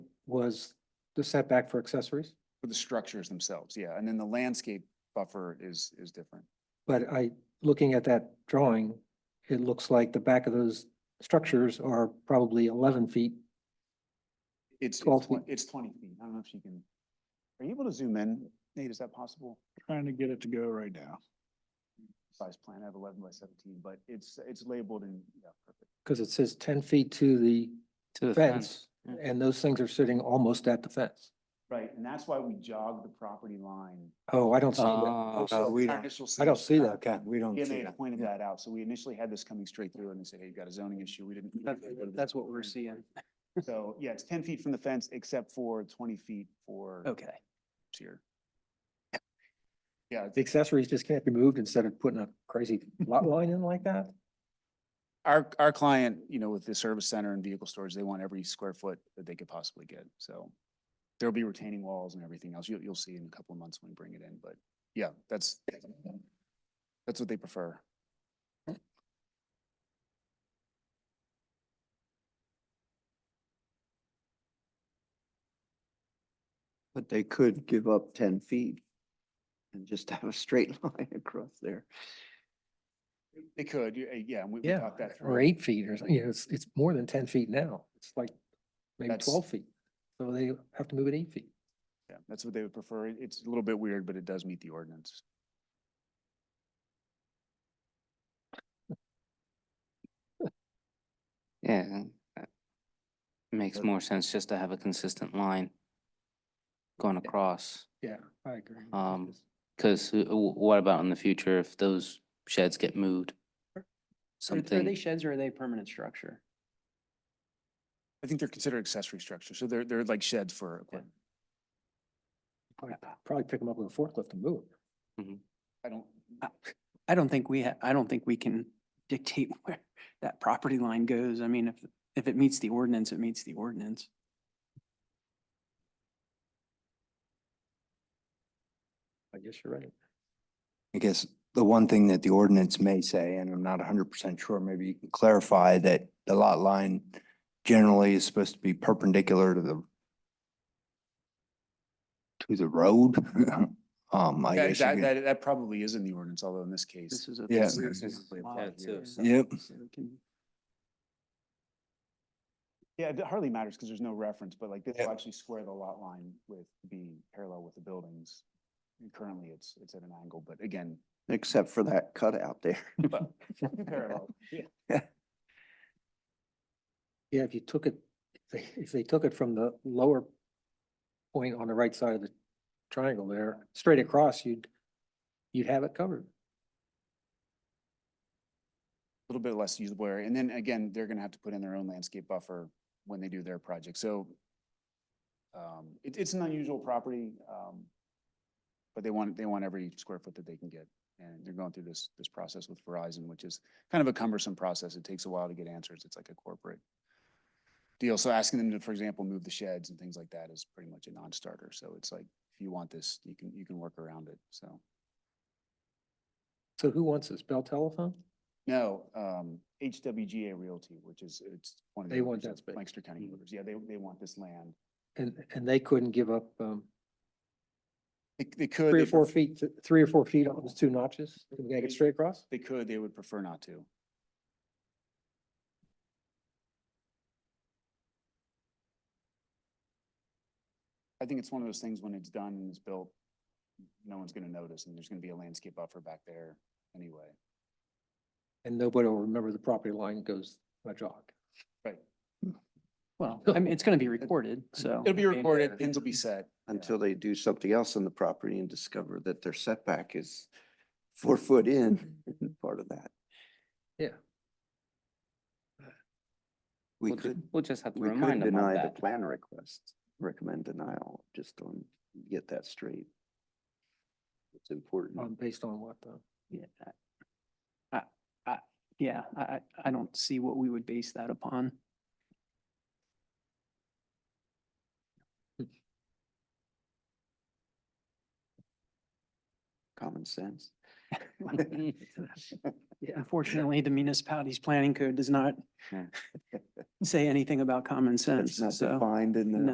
was the setback for accessories, For the structures themselves, yeah. And then the landscape buffer is, is different. but I, looking at that drawing, it looks like the back of those structures are probably eleven feet. It's, it's 12 feet. twen- it's twenty feet. I don't know if you can, are you able to zoom in? Nate, is that possible? Trying to get it to go right now. Size plan, I have eleven by seventeen, but it's, it's labeled in, yeah, perfect. Because it says ten feet to the To the fence, yeah. and those things are sitting almost at the fence. Right, and that's why we jog the property line. Oh, I don't see that. Oh, So we our don't- initial I don't stage see plan- that. Okay, we don't Yeah, they had pointed that out. So we initially had this coming straight through and they said, hey, you've got a zoning issue. We didn't. That's, we didn't- that's what we're seeing. So, yeah, it's ten feet from the fence except for twenty feet for Okay. tier. Yeah, it's- The accessories just can't be moved instead of putting a crazy lot line in like that? our, our client, you know, with the service center and vehicle storage, they want every square foot that they could possibly get. So there'll be retaining walls and everything else. You'll, you'll see in a couple of months when we bring it in, but yeah, that's, that's what they prefer. But they could give up ten feet and just have a straight line across there. They could, you- uh, yeah, and we we Yeah, thought that or through. eight feet or, something. you know, it's, it's more than ten feet now. It's like maybe That's- twelve feet. So they have to move it eight feet. Yeah, That's what they would prefer. It- It's a little bit weird, but it does meet the ordinance. Yeah. that Makes more sense just to have a consistent line going across. Yeah, I agree. Um, Cause who- wh- what about in the future if those sheds get moved? Are they Something, sheds or are they permanent structure? I think they're considered accessory structures, so they're, they're like sheds for equipment. Probably- Probably pick them up with a forklift and move. 'em. I don't, I don't think we, ha- I don't think we can dictate where that property line goes. I mean, if, if it meets the ordinance, it meets the ordinance. I guess you're right. I guess the one thing that the ordinance may say, and I'm not hundred percent sure, maybe you can clarify that the lot line generally is supposed to be perpendicular to the to the road. Um, I that, guess. that, you could- that that probably is in the ordinance, although in this case. This is a. Yeah. this is a Yeah, lot it's a- here, so Yep. it can- Yeah, it hardly matters because there's no reference, but like this Yeah. will actually square the lot line with, be parallel with the buildings. And Currently, it's, it's at an angle, but again, Except for that cutout there. well, parallel. Yeah. Yeah, if you took it, if they- if they took it from the lower point on the right side of the triangle there, straight across, you'd, you'd have it covered. a little bit less usable area. And then again, they're gonna have to put in their own landscape buffer when they do their project, so. Um, it, it's an unusual property, um, but they want, they want every square foot that they can get. And they're going through this, this process with Verizon, which is kind of a cumbersome process. It takes a while to get answers. It's like a corporate deal. So asking them to, for example, move the sheds and things like that is pretty much a non-starter. So it's like, if you want this, you can, you can work around it, so. So who wants this? Bell Telephone? No, um, HWGA Realty, which is, it's one of the. They owners want that of space. Lancaster County Builders. Yeah, they, they want this land. And, and they couldn't give up, um, They, they could. three they or four pref- feet, to- three or four feet on those two notches? Can we get it straight across? They could, they would prefer not to. I think it's one of those things when it's done and it's built, no one's gonna notice and there's gonna be a landscape buffer back there anyway. And nobody will remember the property line goes a jog. Well, I mean, it's going to be recorded, so. It'll be recorded, pins will be set. yeah. Until they do something else on the property and discover that their setback is four foot in, part of that. Yeah. We We'll ju- could, we'll just have to we could remind them of deny the that. plan request, recommend denial, just on, get that straight. It's Um, important. based on what uh, though? Yeah. I, I, yeah, I, I, I don't see what we would base that upon. Common sense. Unfortunately, the municipality's planning code does not Hmm. Yeah. say anything about common sense, It's not so. defined in the. No.